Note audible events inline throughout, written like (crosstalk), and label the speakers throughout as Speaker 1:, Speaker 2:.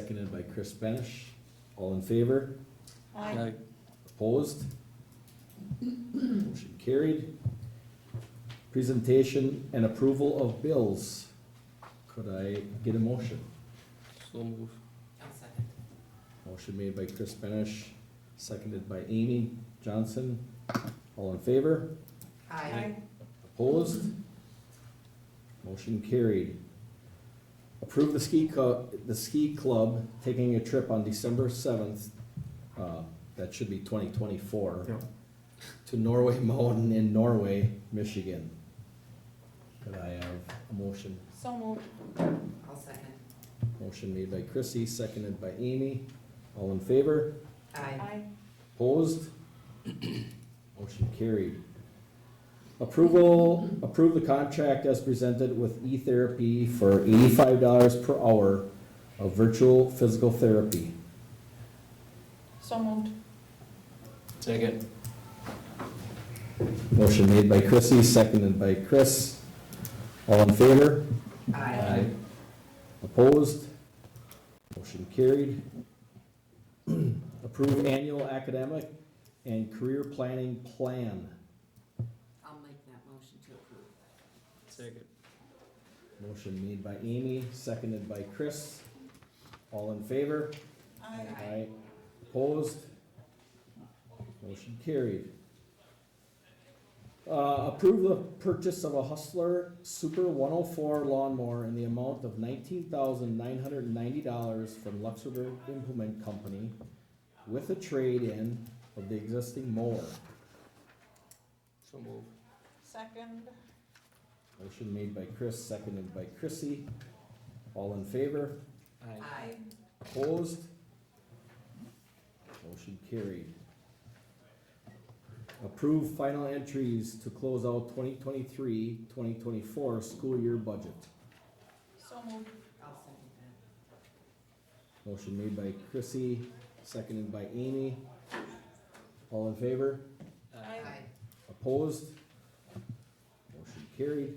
Speaker 1: seconded by Chris Benish. All in favor?
Speaker 2: Aye.
Speaker 1: Opposed? Motion carried. Presentation and approval of bills. Could I get a motion?
Speaker 2: So move.
Speaker 3: I'll second.
Speaker 1: Motion made by Chris Benish, seconded by Amy Johnson. All in favor?
Speaker 3: Aye.
Speaker 1: Opposed? Motion carried. Approve the ski co, the ski club taking a trip on December seventh, uh, that should be twenty twenty-four.
Speaker 4: Yeah.
Speaker 1: To Norway Mountain in Norway, Michigan. Could I have a motion?
Speaker 5: So moved.
Speaker 3: I'll second.
Speaker 1: Motion made by Chrissy, seconded by Amy. All in favor?
Speaker 3: Aye.
Speaker 5: Aye.
Speaker 1: Opposed? (clears throat) Motion carried. Approval, approve the contract as presented with E-Therapy for eighty-five dollars per hour of virtual physical therapy.
Speaker 5: So moved.
Speaker 2: Second.
Speaker 1: Motion made by Chrissy, seconded by Chris. All in favor?
Speaker 3: Aye.
Speaker 1: Opposed? Motion carried. (clears throat) Approve annual academic and career planning plan.
Speaker 3: I'll make that motion to approve.
Speaker 2: Second.
Speaker 1: Motion made by Amy, seconded by Chris. All in favor? Aye. Opposed? Motion carried. Uh, approve the purchase of a Hustler Super one oh four lawnmower in the amount of nineteen thousand nine hundred and ninety dollars from Luxembourg Implement Company with a trade-in of the existing mower.
Speaker 2: So move.
Speaker 5: Second.
Speaker 1: Motion made by Chris, seconded by Chrissy. All in favor?
Speaker 2: Aye.
Speaker 3: Aye.
Speaker 1: Opposed? Motion carried. Approve final entries to close out 2023-2024 school year budget.
Speaker 5: So moved.
Speaker 3: I'll
Speaker 1: Motion
Speaker 3: second
Speaker 1: made by Chrissy, seconded by Amy. All in favor?
Speaker 3: that.
Speaker 5: Aye.
Speaker 1: Opposed? Motion carried.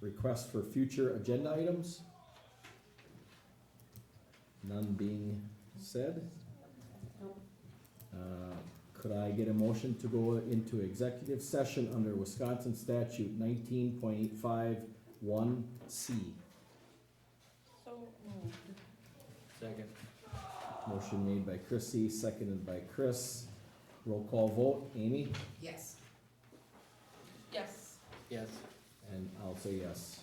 Speaker 1: Request for future agenda items? None being said?
Speaker 3: Nope.
Speaker 1: Uh, Could I get a motion to go into executive session under Wisconsin statute nineteen point eight five one C?
Speaker 5: So moved.
Speaker 2: Second.
Speaker 1: Motion made by Chrissy, seconded by Chris. Roll call vote, Amy?
Speaker 3: Yes.
Speaker 5: Yes.
Speaker 2: Yes.
Speaker 1: And I'll say yes.